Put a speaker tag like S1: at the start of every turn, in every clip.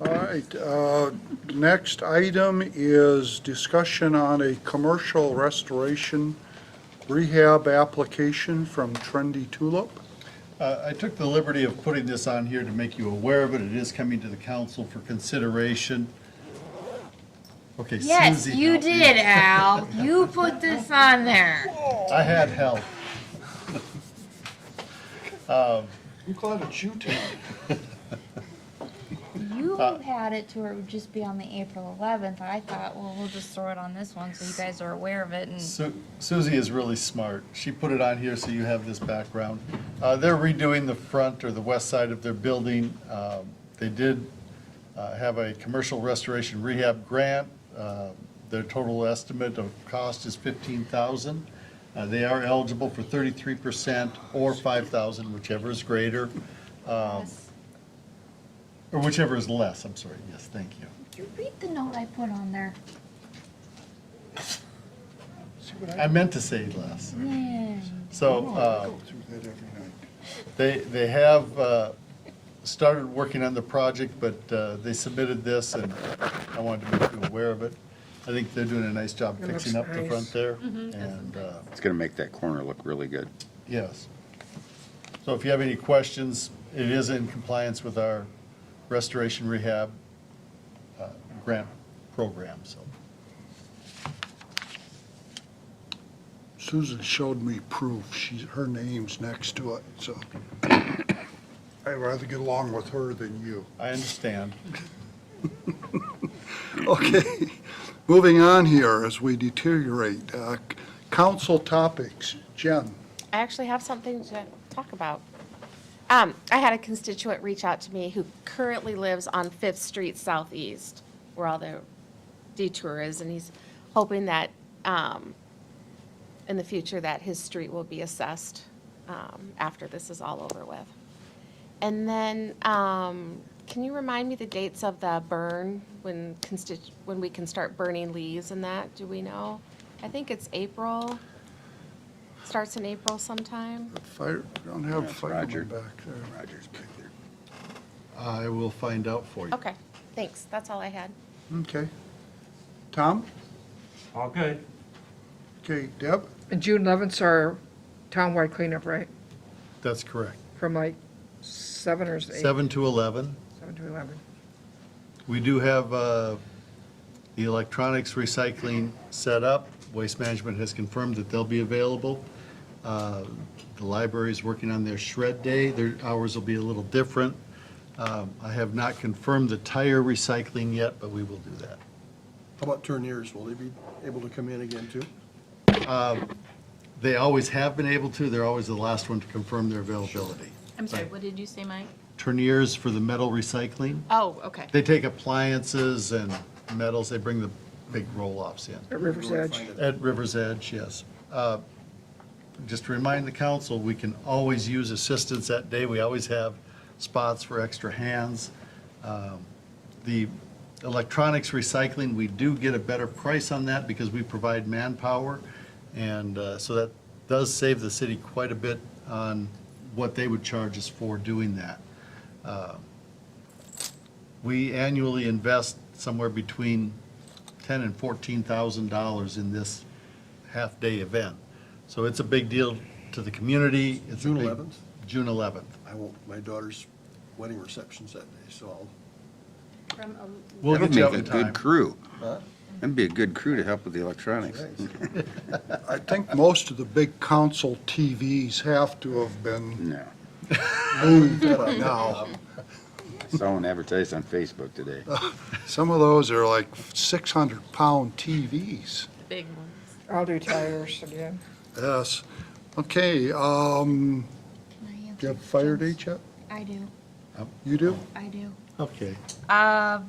S1: All right, uh, next item is discussion on a commercial restoration rehab application from Trendy Tulip.
S2: Uh, I took the liberty of putting this on here to make you aware of it. It is coming to the council for consideration. Okay, Susie.
S3: Yes, you
S2: helped me.
S3: did, Al. You put this on there.
S2: I had help.
S1: I'm glad it's you two.
S3: You
S1: Uh,
S3: had it to where it would just be on the April 11th. I thought, well, we'll just throw it on this one so you guys are aware of it. And
S2: Su- Susie is really smart. She put it on here so you have this background. Uh, They're redoing the front or the west side of their building. Um, They did uh, have a commercial restoration rehab grant. Uh, Their total estimate of cost is fifteen thousand. Uh, They are eligible for thirty-three percent or five thousand, whichever is greater, um, or whichever is less, I'm sorry. Yes, thank you.
S3: Did you read the note I put on there?
S2: I meant to say less.
S3: Yeah.
S2: So. uh, They, they have uh, started working on the project, but uh, they submitted this, and I wanted to make you aware of it. I think they're doing a nice job
S4: It
S2: fixing up
S4: looks
S2: the front
S4: nice.
S2: there. And, uh,
S5: It's going to make that corner look really good.
S2: yes. So if you have any questions, it is in compliance with our restoration rehab uh, grant program, so.
S1: Susan showed me proof, she's, her name's next to it, so I'd rather get along with her than you.
S2: I understand.
S1: Okay, moving on here as we deteriorate. Uh, Council topics, Jen.
S6: I actually have something to talk about. Um, I had a constituent reach out to me who currently lives on Fifth Street Southeast, where all the detour is, and he's hoping that, um, in the future, that his street will be assessed, um, after this is all over with. And then, um, can you remind me the dates of the burn, when constitu, when we can start burning leaves and that, do we know? I think it's April, starts in April sometime.
S1: Fire, don't have
S5: Yes, Roger.
S1: firemen back there.
S5: Roger's back there.
S2: I will find out for you.
S6: Okay, thanks, that's all I had.
S1: Okay. Tom?
S7: All good.
S1: Okay, Deb?
S4: And June 11th's our townwide cleanup, right?
S2: That's correct.
S4: From like 7 or 8?
S2: Seven to 11.
S4: 7 to 11.
S2: We do have uh, the electronics recycling set up. Waste Management has confirmed that they'll be available. Uh, The library is working on their shred day. Their hours will be a little different. Um, I have not confirmed the tire recycling yet, but we will do that.
S8: How about turniers? Will they be able to come in again too?
S2: Um, They always have been able to. They're always the last one to confirm their availability.
S9: I'm sorry, what did you say, Mike?
S2: Turniers for the metal recycling.
S9: Oh, okay.
S2: They take appliances and metals. They bring the big roll-offs in.
S4: At River's Edge.
S2: At River's Edge, yes. Uh, Just to remind the council, we can always use assistance that day. We always have spots for extra hands. Um, The electronics recycling, we do get a better price on that because we provide manpower. And uh, so that does save the city quite a bit on what they would charge us for doing that. Uh, We annually invest somewhere between ten and fourteen thousand dollars in this half-day event. So it's a big deal to the community. It's a
S8: June
S2: big-
S8: 11th?
S2: June eleventh.
S8: I won't, my daughter's wedding reception's that day, so I'll
S2: We'll
S5: That'll
S2: get you
S5: make
S2: up
S5: a
S2: in time.
S5: good crew. That'd be a good crew to help with the electronics.
S1: I think most of the big council TVs have to have been
S5: No.
S1: moved by now.
S5: Someone advertised on Facebook today. Uh,
S8: Mm.
S1: Some of those are like 600-pound TVs.
S9: The big ones.
S4: I'll do tires again.
S1: Yes. Okay, um,
S3: Can I answer
S1: do you have fire date yet?
S3: I do,
S1: You do?
S3: I do.
S2: Okay.
S3: Uh,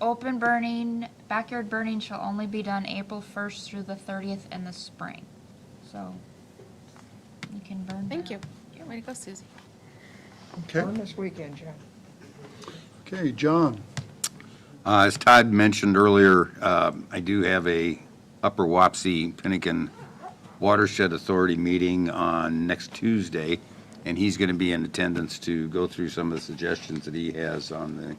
S3: open burning, backyard burning shall only be done April 1st through the 30th in the spring. So you can burn.
S6: Thank
S3: now.
S6: you. Yeah, way to go, Susie.
S1: Okay,
S4: On this weekend, John.
S1: okay, John.
S5: Uh, As Todd mentioned earlier, um, I do have a Upper Wapsie Pinnakin Watershed Authority meeting on next Tuesday, and he's going to be in attendance to go through some of the suggestions that he has on the